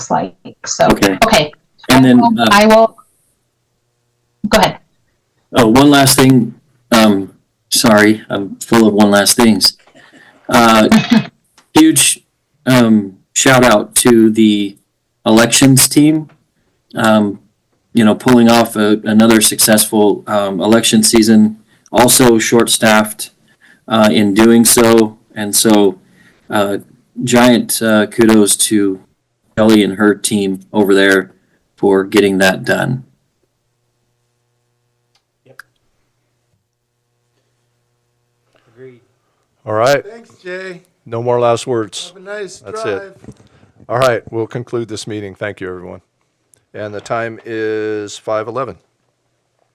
looks like. So, Okay. okay, And then, uh, I will, go ahead. oh, one last thing. Um, sorry, I'm full of one last things. Uh, huge um, shout out to the elections team. Um, you know, pulling off a, another successful um, election season, also short staffed uh, in doing so. And so, uh, giant uh, kudos to Kelly and her team over there for getting that done. Agreed. All right, Thanks, Jay. no more last words. Have a nice That's drive. it. All right, we'll conclude this meeting. Thank you, everyone. And the time is 5:11.